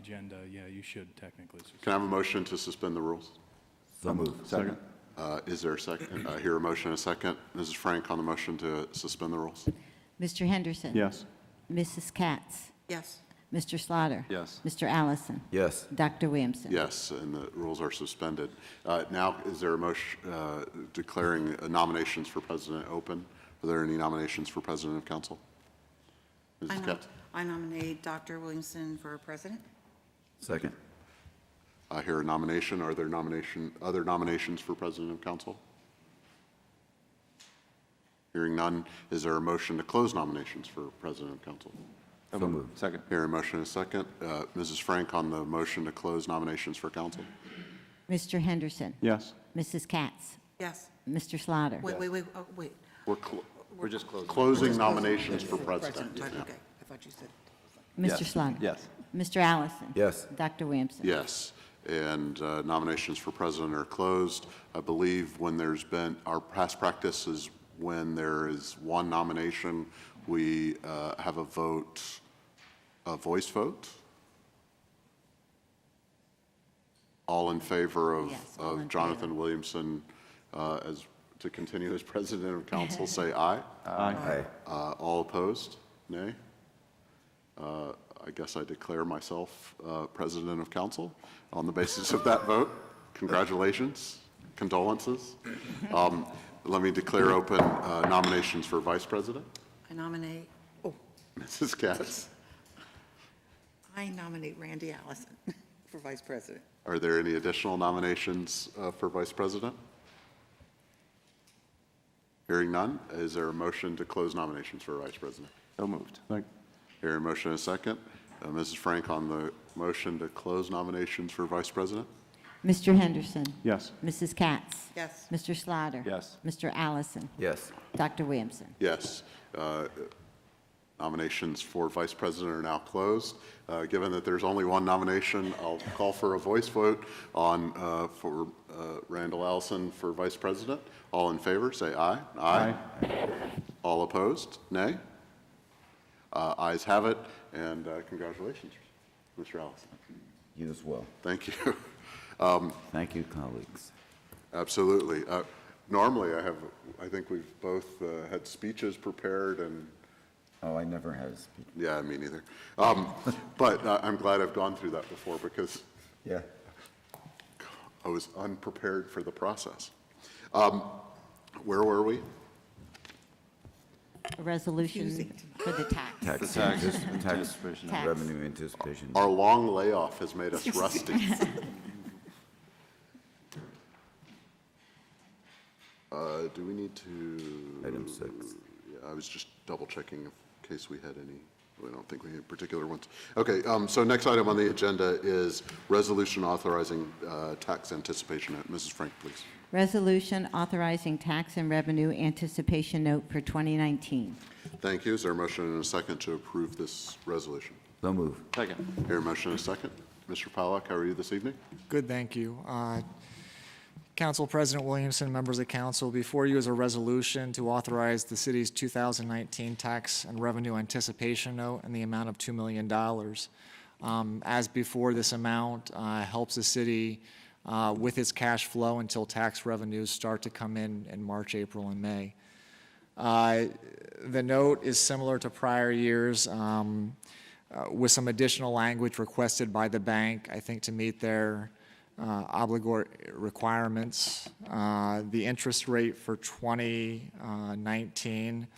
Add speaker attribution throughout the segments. Speaker 1: agenda, yeah, you should technically.
Speaker 2: Can I have a motion to suspend the rules?
Speaker 3: So moved.
Speaker 4: Second?
Speaker 2: Uh, Is there a second? I hear a motion and a second. Mrs. Frank on the motion to suspend the rules?
Speaker 5: Mr. Henderson.
Speaker 4: Yes.
Speaker 5: Mrs. Katz.
Speaker 6: yes,
Speaker 5: Mr. Slaughter.
Speaker 4: Yes.
Speaker 5: Mr. Allison.
Speaker 3: Yes,
Speaker 5: Dr. Williamson.
Speaker 2: Yes, and the rules are suspended. Uh, Now, is there a motion uh, declaring nominations for president open? Are there any nominations for president of council?
Speaker 6: I
Speaker 2: Mrs.
Speaker 6: nom-
Speaker 2: Katz?
Speaker 6: I nominate Dr. Williamson for president.
Speaker 3: second.
Speaker 2: I hear a nomination. Are there nomination, other nominations for president of council? Hearing none, is there a motion to close nominations for president of council?
Speaker 3: So moved.
Speaker 4: Second?
Speaker 2: Hear a motion and a second. Uh, Mrs. Frank on the motion to close nominations for council?
Speaker 5: Mr. Henderson.
Speaker 4: Yes.
Speaker 5: Mrs. Katz.
Speaker 6: Yes.
Speaker 5: Mr. Slaughter.
Speaker 6: Wait, wait, wait, oh, wait.
Speaker 2: We're clo-
Speaker 3: We're just closing.
Speaker 2: closing nominations for president.
Speaker 6: Sorry,
Speaker 2: yeah.
Speaker 6: Okay, I thought you said.
Speaker 5: Mr.
Speaker 3: Yes.
Speaker 5: Slaughter.
Speaker 4: Yes.
Speaker 5: Mr. Allison.
Speaker 3: Yes.
Speaker 5: Dr. Williamson.
Speaker 2: Yes, and uh, nominations for president are closed. I believe when there's been, our past practice is when there is one nomination, we uh, have a vote, a voice vote? All in favor of
Speaker 5: Yes, all in
Speaker 2: of
Speaker 5: favor.
Speaker 2: Jonathan Williamson uh, as, to continue as president of council, say aye.
Speaker 3: Aye.
Speaker 2: Uh, All opposed? Nay? Uh, I guess I declare myself uh, president of council on the basis of that vote. Congratulations, condolences. Um, Let me declare open uh, nominations for vice president.
Speaker 6: I nominate, oh,
Speaker 2: Mrs. Katz,
Speaker 6: I nominate Randy Allison for vice president.
Speaker 2: are there any additional nominations uh, for vice president? Hearing none, is there a motion to close nominations for vice president?
Speaker 4: So moved. Second?
Speaker 2: Hearing a motion and a second. Uh, Mrs. Frank on the motion to close nominations for vice president?
Speaker 5: Mr. Henderson.
Speaker 4: Yes.
Speaker 5: Mrs. Katz.
Speaker 6: Yes.
Speaker 5: Mr. Slaughter.
Speaker 4: Yes.
Speaker 5: Mr. Allison.
Speaker 3: Yes,
Speaker 5: Dr. Williamson.
Speaker 2: Yes. Uh, Nominations for vice president are now closed. Uh, Given that there's only one nomination, I'll call for a voice vote on, uh, for uh, Randall Allison for vice president. All in favor, say aye. All opposed, nay? Uh, Ayes have it, and uh, congratulations, Mr. Allison.
Speaker 3: you as well.
Speaker 2: Thank you.
Speaker 3: Thank you, colleagues.
Speaker 2: Absolutely. Uh, Normally, I have, I think we've both uh, had speeches prepared and
Speaker 3: Oh, I never had a speech.
Speaker 2: Yeah, me neither. Um, But uh, I'm glad I've gone through that before because
Speaker 3: Yeah.
Speaker 2: I was unprepared for the process. Um, Where were we?
Speaker 5: A resolution
Speaker 6: Confusing.
Speaker 5: for the tax.
Speaker 3: Tax,
Speaker 4: tax
Speaker 3: antici- tax,
Speaker 4: anticipation.
Speaker 5: Tax.
Speaker 3: revenue anticipation.
Speaker 2: Our long layoff has made us rusty. Uh, Do we need to,
Speaker 3: Item six.
Speaker 2: yeah, I was just double checking in case we had any, I don't think we had particular ones. Okay, um, so next item on the agenda is resolution authorizing uh, tax anticipation. Mrs. Frank, please.
Speaker 5: Resolution authorizing tax and revenue anticipation note for 2019.
Speaker 2: Thank you. Is there a motion and a second to approve this resolution?
Speaker 3: So moved.
Speaker 4: Second?
Speaker 2: Here, a motion and a second. Mr. Pollack, how are you this evening?
Speaker 7: Good, thank you. Uh, Council President Williamson, members of council, before you is a resolution to authorize the city's 2019 tax and revenue anticipation note in the amount of $2 million. Um, As before, this amount uh, helps the city uh, with its cash flow until tax revenues start to come in in March, April, and May. Uh, The note is similar to prior years, um, uh, with some additional language requested by the bank, I think, to meet their uh, obligor requirements. Uh, The interest rate for 2019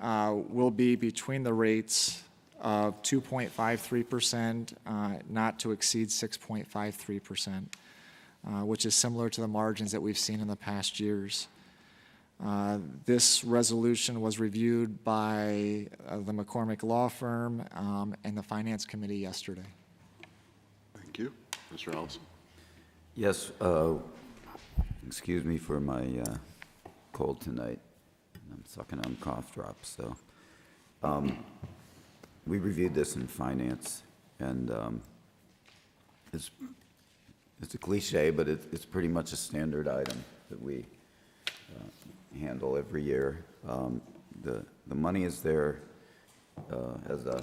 Speaker 7: uh, will be between the rates of 2.53%, uh, not to exceed 6.53%, uh, which is similar to the margins that we've seen in the past years. Uh, This resolution was reviewed by uh, the McCormick Law Firm um, and the Finance Committee yesterday.
Speaker 2: Thank you. Mr. Allison?
Speaker 3: Yes, uh, excuse me for my uh, cold tonight. I'm sucking on cough drops, so. um, We reviewed this in finance, and um, it's, it's a cliche, but it- it's pretty much a standard item that we uh, handle every year. Um, The, the money is there uh, as a,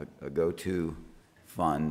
Speaker 3: a- a go-to fund,